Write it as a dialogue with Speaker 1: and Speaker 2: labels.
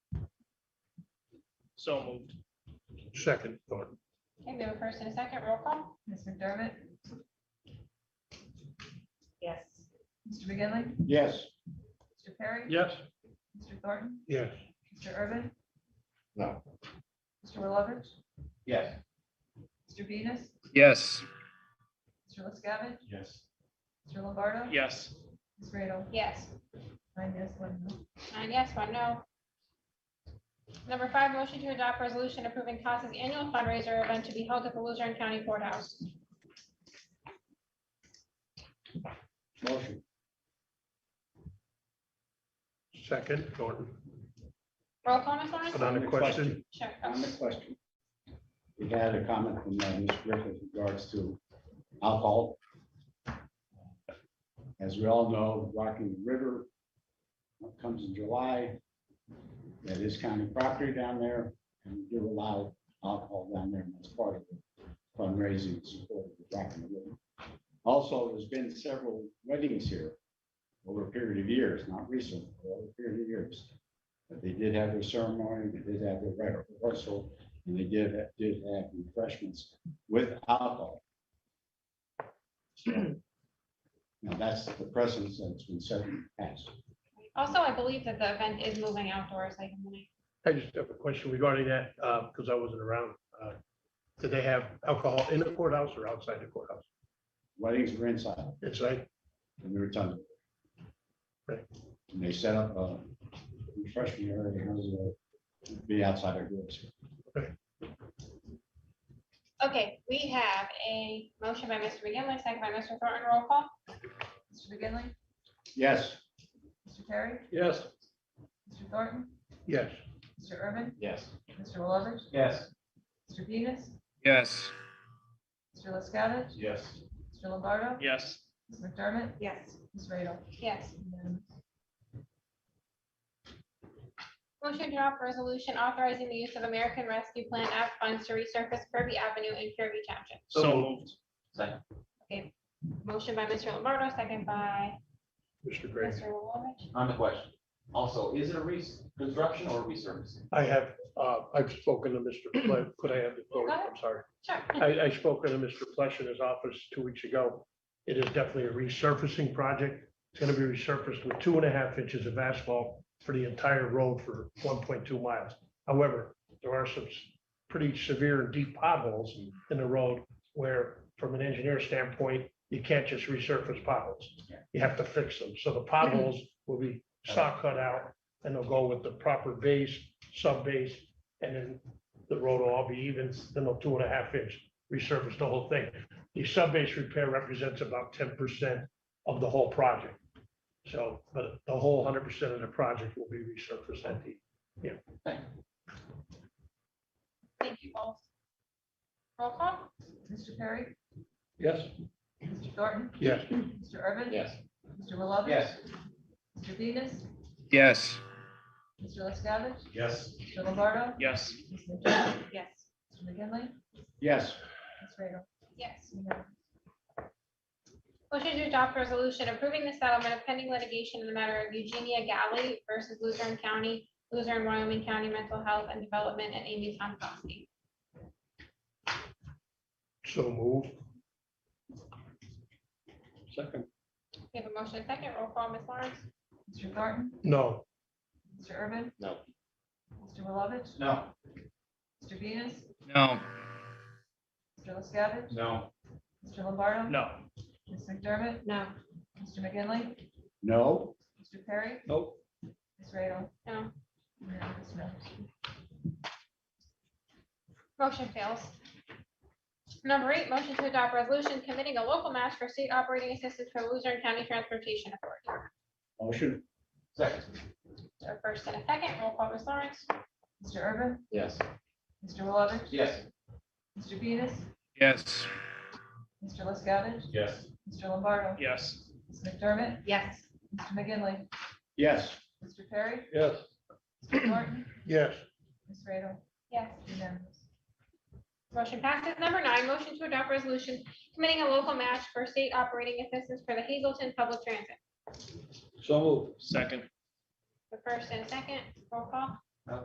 Speaker 1: So moved.
Speaker 2: Second, Thornton.
Speaker 3: Okay, we have a first and a second roll call?
Speaker 4: Ms. McDermott?
Speaker 3: Yes.
Speaker 4: Mr. McGinley,
Speaker 5: Yes.
Speaker 4: Mr. Perry?
Speaker 1: Yes.
Speaker 4: Mr. Thornton?
Speaker 2: Yes.
Speaker 4: Mr. Urban?
Speaker 5: No.
Speaker 4: Mr. Willovich?
Speaker 5: Yes.
Speaker 4: Mr. Venus?
Speaker 6: yes,
Speaker 4: Mr. LaScavitch?
Speaker 5: Yes.
Speaker 4: Mr. Lombardo?
Speaker 1: Yes.
Speaker 4: Ms. Radel?
Speaker 3: Yes.
Speaker 4: Nine yes, one no.
Speaker 3: Nine yes, one no. Number five, motion to adopt resolution approving CASA's annual fundraiser event to be held at the Luzerne County Courthouse.
Speaker 5: Motion.
Speaker 2: Second, Thornton.
Speaker 3: Roll call, Ms. Lawrence?
Speaker 2: And on the question,
Speaker 3: Sure.
Speaker 5: On the question. We had a comment from uh, Ms. Griffith in regards to alcohol. As we all know, Rocking the River what comes in July. That is county property down there and we do allow alcohol down there and that's part of the fundraising and support of Rocking the River. Also, there's been several weddings here over a period of years, not recent, but over a period of years. But they did have their ceremony, they did have their reg- rehearsal, and they did, did have refreshments with alcohol. So, Now, that's the precedent that's been set in the past.
Speaker 3: Also, I believe that the event is moving outdoors, like, in the night.
Speaker 2: I just have a question regarding that, because I wasn't around. Uh, Did they have alcohol in the courthouse or outside the courthouse?
Speaker 5: Weddings were inside,
Speaker 2: Inside?
Speaker 5: and we were talking.
Speaker 2: Right.
Speaker 5: And they set up a refreshment area, and it was, uh, be outside our doors.
Speaker 3: Okay, we have a motion by Mr. McGinley, second by Mr. Thornton, roll call?
Speaker 4: Mr. McGinley,
Speaker 5: Yes.
Speaker 4: Mr. Perry?
Speaker 2: Yes.
Speaker 4: Mr. Thornton?
Speaker 2: Yes.
Speaker 4: Mr. Urban?
Speaker 5: Yes.
Speaker 4: Mr. Willovich?
Speaker 5: Yes.
Speaker 4: Mr. Venus?
Speaker 6: yes,
Speaker 4: Mr. LaScavitch?
Speaker 5: Yes.
Speaker 4: Mr. Lombardo?
Speaker 1: Yes.
Speaker 4: Ms. McDermott?
Speaker 3: Yes.
Speaker 4: Ms. Radel?
Speaker 3: Yes.
Speaker 4: Unanimous.
Speaker 3: Motion to adopt resolution authorizing the use of American Rescue Plan Act funds to resurface Kirby Avenue in Kirby Township.
Speaker 1: So moved.
Speaker 3: Okay, motion by Mr. Lombardo, second by
Speaker 2: Mr. Gray.
Speaker 3: Mr. Lovovich.
Speaker 7: On the question, also, is it a reconstruction or resurfacing?
Speaker 2: I have, uh, I've spoken to Mr. Ple- Could I have the floor? I'm sorry.
Speaker 3: Sure.
Speaker 2: I, I spoke to Mr. Flesh in his office two weeks ago. It is definitely a resurfacing project. It's gonna be resurfaced with two and a half inches of asphalt for the entire road for one point two miles. However, there are some s- pretty severe and deep potholes in the road where, from an engineer standpoint, you can't just resurface potholes.
Speaker 5: Yeah.
Speaker 2: You have to fix them. So the potholes will be saw cut out and they'll go with the proper base, sub base, and then the road will all be even, then they'll two and a half inch resurface the whole thing. The sub-base repair represents about ten percent of the whole project. So, but the whole hundred percent of the project will be resurfaced at the,
Speaker 3: Thank you both. Roll call?
Speaker 4: Mr. Perry?
Speaker 2: yes?
Speaker 4: Mr. Thornton?
Speaker 2: Yes.
Speaker 4: Mr. Urban?
Speaker 7: Yes.
Speaker 4: Mr. Willovich?
Speaker 7: Yes.
Speaker 4: Mr. Venus?
Speaker 6: yes,
Speaker 4: Mr. LaScavitch?
Speaker 5: Yes.
Speaker 4: Mr. Lombardo?
Speaker 1: Yes.
Speaker 4: Ms. McDermott?
Speaker 3: Yes.
Speaker 4: Mr. McGinley?
Speaker 5: Yes.
Speaker 4: Ms. Radel?
Speaker 3: Yes.
Speaker 4: Unanimous.
Speaker 3: Motion to adopt resolution approving the settlement of pending litigation in the matter of Eugenia Galley versus Luzerne County, Luzerne, Wyoming County Mental Health and Development and Amy Tomkowski.
Speaker 2: So move. Second.
Speaker 3: We have a motion and second. Roll call, Ms. Lawrence?
Speaker 4: Mr. Thornton?
Speaker 2: No,
Speaker 4: Mr. Urban?
Speaker 7: No.
Speaker 4: Mr. Willovich?
Speaker 5: No.
Speaker 4: Mr. Venus?
Speaker 6: no,
Speaker 4: Mr. LaScavitch?
Speaker 5: No.
Speaker 4: Mr. Lombardo?
Speaker 1: No.
Speaker 4: Ms. McDermott?
Speaker 3: No.
Speaker 4: Mr. McGinley?
Speaker 5: No.
Speaker 4: Mr. Perry?
Speaker 5: Nope.
Speaker 4: Ms. Radel?
Speaker 3: No.
Speaker 4: Unanimous, no.
Speaker 3: Motion fails. Number eight, motion to adopt resolution committing a local match for state operating assistance for Luzerne County Transportation Authority.
Speaker 5: Motion.
Speaker 7: Second.
Speaker 3: So first and a second, roll call, Ms. Lawrence?
Speaker 4: Mr. Urban?
Speaker 7: Yes.
Speaker 4: Mr. Willovich?
Speaker 7: Yes.
Speaker 4: Mr. Venus?
Speaker 6: yes,
Speaker 4: Mr. LaScavitch?
Speaker 5: Yes.
Speaker 4: Mr. Lombardo?
Speaker 1: Yes.
Speaker 4: Ms. McDermott?
Speaker 3: Yes.
Speaker 4: Mr. McGinley?
Speaker 5: Yes.
Speaker 4: Mr. Perry?
Speaker 2: yes,
Speaker 4: Mr. Thornton?
Speaker 2: yes,
Speaker 4: Ms. Radel?
Speaker 3: Yes.
Speaker 4: Unanimous.
Speaker 3: Motion passes. Number nine, motion to adopt resolution committing a local match for state operating assistance for the Hazelton Public Transit.
Speaker 1: Second.
Speaker 3: The first and a second, roll call?